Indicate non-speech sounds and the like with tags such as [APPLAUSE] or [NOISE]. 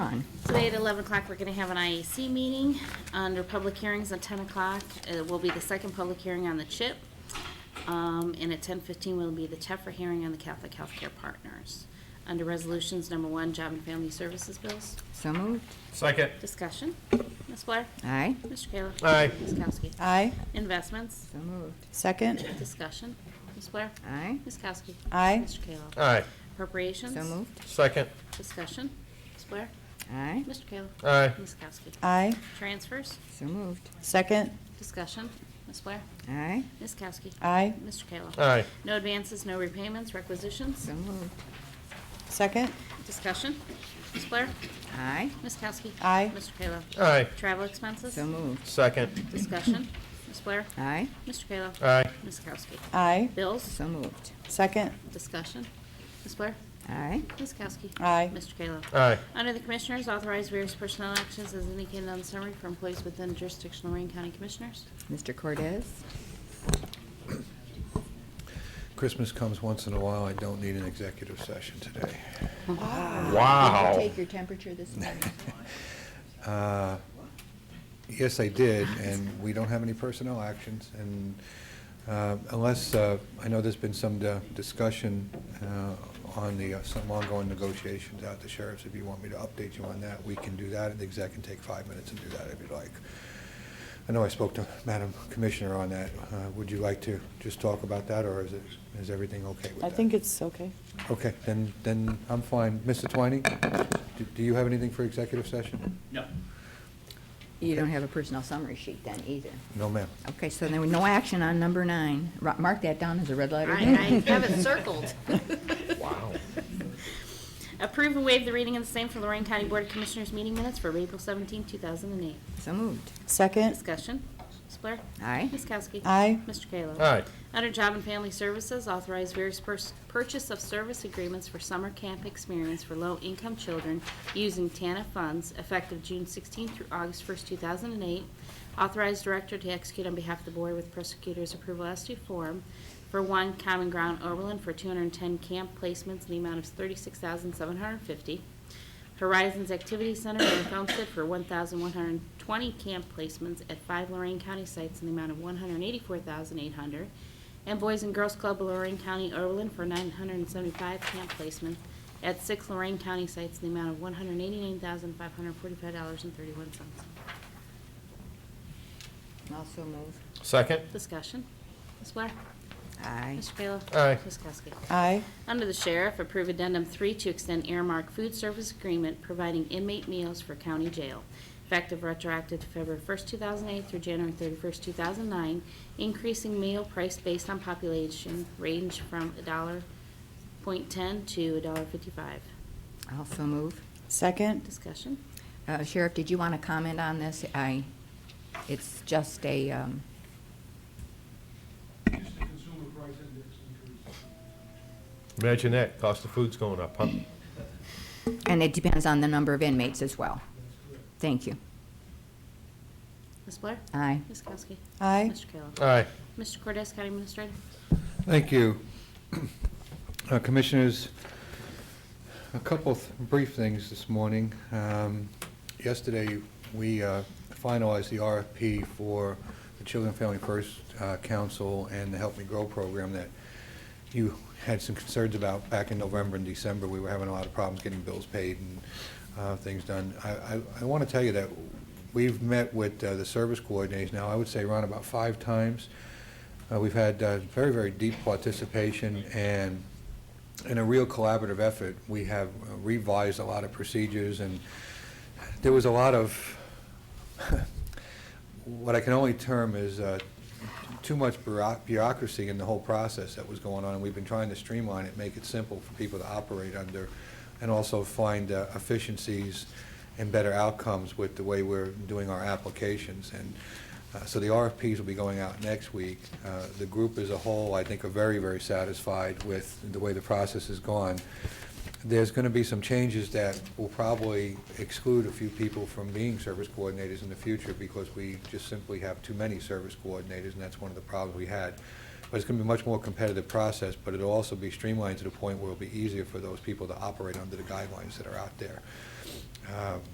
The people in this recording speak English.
Today at 11 o'clock, we're going to have an IAC meeting under public hearings at 10 o'clock. Uh, It will be the second public hearing on the CHIP. Um, And at 10:15 will be the TEFRA hearing on the Catholic Healthcare Partners. Under resolutions, number one, job and family services bills. So moved. Second. Discussion. Ms. Blair? Aye. Mr. Kayla? Aye. Ms. Kowski? Aye. Investments? So moved. Second. Discussion. Ms. Blair? Aye. Ms. Kowski? Aye. Mr. Kayla? Aye. Appropriations? So moved. Second. Discussion. Ms. Blair? Aye. Mr. Kayla? Aye. Ms. Kowski? Aye. Transfers? So moved. Second. Discussion. Ms. Blair? Aye. Ms. Kowski? Aye. Mr. Kayla? Aye. No advances, no repayments, requisitions? So moved. Second. Discussion. Ms. Blair? Aye. Ms. Kowski? Aye. Mr. Kayla? Aye. Travel expenses? So moved. Second. Discussion. Ms. Blair? Aye. Mr. Kayla? Aye. Ms. Kowski? Aye. Bills? So moved. Second. Discussion. Ms. Blair? Aye. Ms. Kowski? Aye. Mr. Kayla? Aye. Under the Commissioners, authorize various personnel actions as indicated on the summary for employees within jurisdictional Lorraine County Commissioners. Mr. Cortez? Christmas comes once in a while. I don't need an executive session today. [LAUGHS] Wow. Take your temperature this morning. Uh, Yes, I did, and we don't have any personnel actions, and uh, unless, uh, I know there's been some uh, discussion uh, on the, uh, some ongoing negotiations out the sheriffs. If you want me to update you on that, we can do that, and the exec can take five minutes and do that if you'd like. I know I spoke to Madam Commissioner on that. Uh, Would you like to just talk about that, or is it, is everything okay with I that? think it's okay. Okay, then, then I'm fine. Mr. Twining, do- do you have anything for executive session? You don't have a personal summary sheet then either. No, ma'am. Okay, so there was no action on number nine. Ro- Mark that down as a red I letter. I have [LAUGHS] it circled. Wow. Approve and waive the reading of the same for Lorraine County Board of Commissioners meeting minutes for April 17, 2008. So moved. Second. Discussion. Ms. Blair? Aye. Ms. Kowski? Aye. Mr. Kayla? Aye. Under Job and Family Services, authorize various pers- purchase of service agreements for summer camp experience for low-income children using TANF funds effective June 16 through August 1, 2008. Authorize director to execute on behalf of the board with prosecutor's approval as to form for one Common Ground Oberlin for 210 camp placements in the amount of 36750 Horizons Activity Center in Homestead for 1,120 camp placements at five Lorraine County sites in the amount of 184,800. And Boys and Girls Club of Lorraine County Oberlin for 975 camp placements at six Lorraine County sites in the amount of $189,545.31. Also moved. Second. Discussion. Ms. Blair? Aye. Mr. Kayla? Aye. Ms. Kowski? Aye. Under the Sheriff, approve addendum three to extend Airmark food service agreement providing inmate meals for county jail, effective retroactive to February 1st, 2008 through January 31st, 2009, increasing meal price based on population range from $1.10 to $1.55. Also moved. Second. Discussion? Uh, Sheriff, did you want to comment on this? I, it's just a, um, Just the consumer price index increase. Imagine that. Cost of food's going up, huh? and it depends on the number of inmates as well. That's correct. Thank you. Ms. Blair? Aye. Ms. Kowski? Aye. Mr. Kayla? Aye. Mr. Cortez, County Administrator? Thank you. Uh, Commissioners, a couple th- brief things this morning. Um, Yesterday, we uh, finalized the RFP for the Children and Family First uh, Council and the Help Me Grow program that you had some concerns about back in November and December. We were having a lot of problems getting bills paid and uh, things done. I- I I want to tell you that we've met with uh, the service coordinators now, I would say around about five times. Uh, We've had uh, very, very deep participation and in a real collaborative effort. We have uh, revised a lot of procedures and there was a lot of, [LAUGHS] what I can only term is uh, too much bureau- bureaucracy in the whole process that was going on. And we've been trying to streamline it, make it simple for people to operate under and also find uh, efficiencies and better outcomes with the way we're doing our applications. And uh, So the RFPs will be going out next week. Uh, The group as a whole, I think, are very, very satisfied with the way the process has gone. There's going to be some changes that will probably exclude a few people from being service coordinators in the future because we just simply have too many service coordinators, and that's one of the problems we had. But it's going to be a much more competitive process, but it'll also be streamlined to the point where it'll be easier for those people to operate under the guidelines that are out there. Uh,